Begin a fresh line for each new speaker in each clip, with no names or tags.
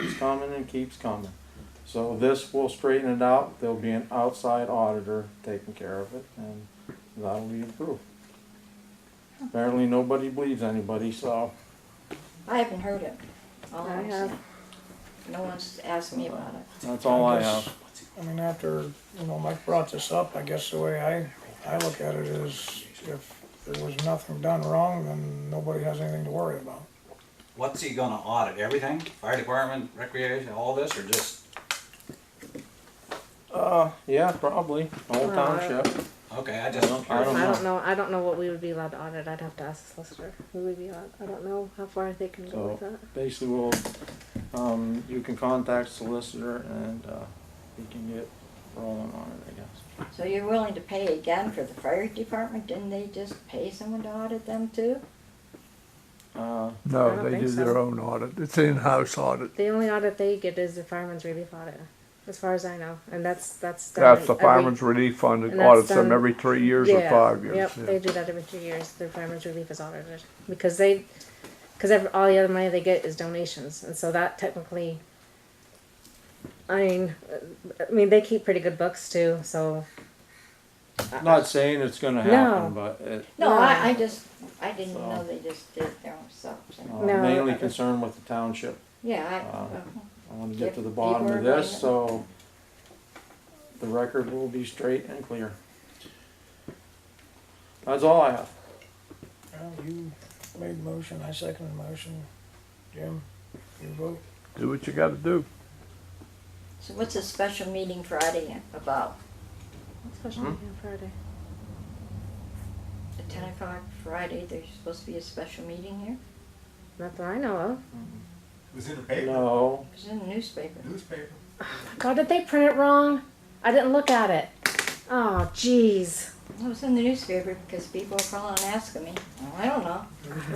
and keeps coming. So this will straighten it out, there'll be an outside auditor taking care of it, and that'll be approved. Apparently, nobody believes anybody, so
I haven't heard it. All
I
I'm
have.
saying. No one's asked me about it.
that's all I
guess-
have.
I mean, after, you know, Mike brought this up, I guess the way I, I look at it is if there was nothing done wrong, then nobody has anything to worry about.
What's he gonna audit? Everything? Fire department, recreation, all this, or just,
Uh, yeah, probably, whole township.
okay, I
I
just.
don't
I
know.
don't know. I don't know what we would be allowed to audit. I'd have to ask the solicitor. Who would be allowed? I don't know how far they can go with
So-
that.
Basically, we'll, um, you can contact solicitor and, uh, we can get rolling on it, I guess.
So you're willing to pay again for the fire department? Didn't they just pay someone to audit them too?
Uh,
I
No,
don't
they
think
do
so.
their own audit. It's in-house audit.
The only audit they get is the fireman's relief audit, as far as I know, and that's that's. done
That's the
every-
Fireman's Relief Fund that
And that's
audits them
done-
every three years or
Yeah,
five years.
Yep,
yeah.
they do that every two years. Their fireman's relief is audited because they, because all the other money they get is donations, and so that technically. I mean, uh, I mean they keep pretty good books too, so. I-
not saying it's gonna happen,
No.
but it,
No,
No.
I, I just, I didn't
So-
know they just did it themselves.
uh,
No,
mainly
I-
concerned with the township.
Yeah,
Uh,
I,
I wanna get to the
Give
bottom of
people a
this, so the record will be straight and clear. That's all I have.
Well, you made the motion, I seconded the motion. Jim, you vote?
Do what you gotta do.
so what's a special meeting Friday about?
Special
Hmm?
meeting on Friday.
At ten o'clock Friday, there's supposed to be a special meeting here?
Not that I know of.
It was in the paper,
No,
It was in the newspaper.
newspaper.
God, did they print it wrong? I didn't look at it. Oh, jeez.
It was in the newspaper because people are calling and asking me. Well, I don't know.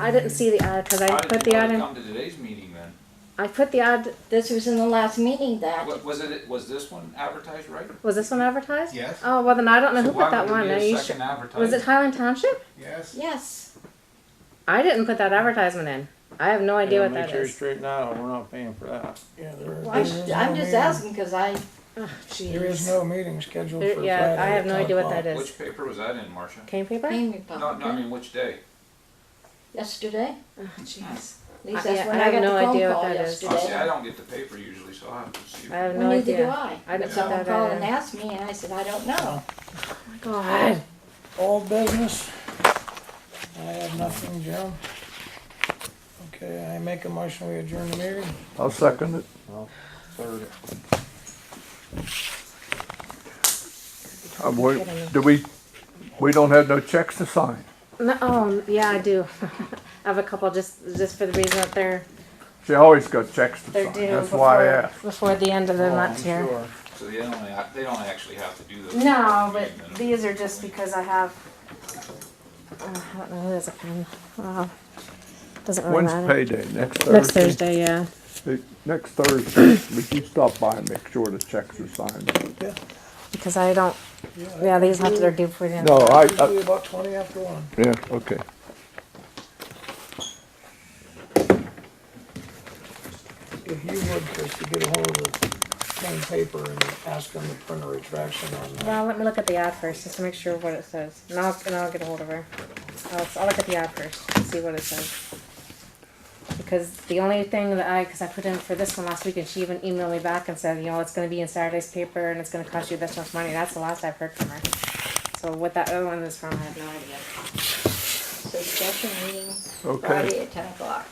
I didn't see the ad because I
How did
put the
you know
ad
to
in.
Come to today's meeting then.
I put the ad.
This was in the last meeting that,
Wa- Was it, was this one advertised right?
Was this one advertised?
Yes.
Oh well, then I don't know
So
who
why
put that
would
one.
it
Are
be a
you
second
sure?
advertisement?
Was it Highland Township?
Yes.
yes.
I didn't put that advertisement in. I have no idea
yeah,
what
make
that
sure you
is.
straighten that out, we're not paying for that.
Yeah, there
Well, I'm
there
just-
is no
I'm just
meeting-
asking because I,
Oh,
There is
jeez.
no meeting scheduled for
There-
Friday.
Uh, Yeah, I have no
at 10
idea what that
o'clock.
is.
Which paper was that in, Marcia?
Cane paper? Oh,
Green
No, no, I
Republican,
mean, which day?
yesterday.
jeez.
At least
I- yeah,
that's when
I
I got
have
the
no idea
phone
what
call
that is.
Oh, see, I
yesterday.
don't get the paper usually, so I have to see.
I have
Well,
no
neither do
idea.
I.
I didn't
But
put
someone
that
called
in.
and asked me and I said, I don't know.
God.
All business? I have nothing, Jim. Okay, I make a motion, we adjourn the meeting.
I'll second it.
Well, third,
I won't- do we, we don't have no checks to sign.
No, oh, yeah, I do. I have a couple just just for the reason that they're
She always got checks to
they're
sign.
due
That's
before,
why I asked.
before the end of the
Oh, I'm
month here.
sure.
So they don't, act- they don't actually have to do those.
No,
Meeting
but
minutes.
these are just because I have. Uh, I don't know who has a pen. Wow. Doesn't really
When's
matter.
payday? Next Thursday?
Next Thursday, yeah.
Hey, Next Thursday. Would you stop by and make sure the checks are signed?
Because I don't. Yeah, these have to they're due for the end.
No, I, I,
Usually about twenty after one.
yeah, okay.
If you would, just to get ahold of plain paper and ask them to print a retraction on that.
Well, let me look at the ad first just to make sure what it says. And I'll, and I'll get a hold of her. I'll, I'll look at the ad first and see what it says. Because the only thing that I, because I put in for this one last week and she even emailed me back and said, you know, it's going to be in Saturday's paper and it's going to cost you this much money. That's the last I've heard from her. So what that other one is from, I have no idea.
So special meeting
Okay.
Friday at ten o'clock.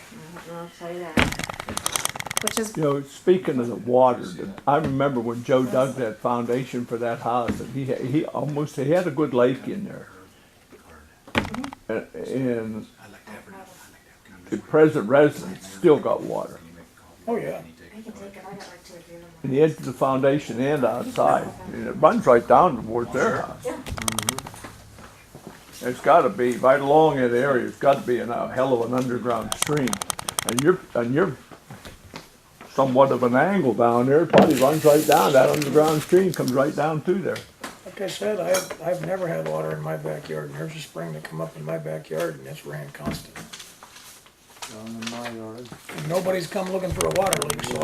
I'll tell you that.
Which is
You know, speaking of the water, I remember when Joe dug that foundation for that house, and he he almost he had a good lake in there, and, and
I like to have her- I like to have her-
the present residents still got water
Can you make a copy?
Oh, yeah.
I can take it. I got like two or three in the morning.
in the edge of the foundation and outside, and it runs right down towards their house. Mm-hmm. It's got to be right along that area. It's got to be an, a hell of an underground stream, and you're and you're somewhat of an angle down there. It probably runs right down that underground stream comes right down through there.
Like I said, I've, I've never had water in my backyard, and there's a spring that come up in my backyard, and it's ran constant.
down in my yard.
And Nobody's come looking for a water leak, so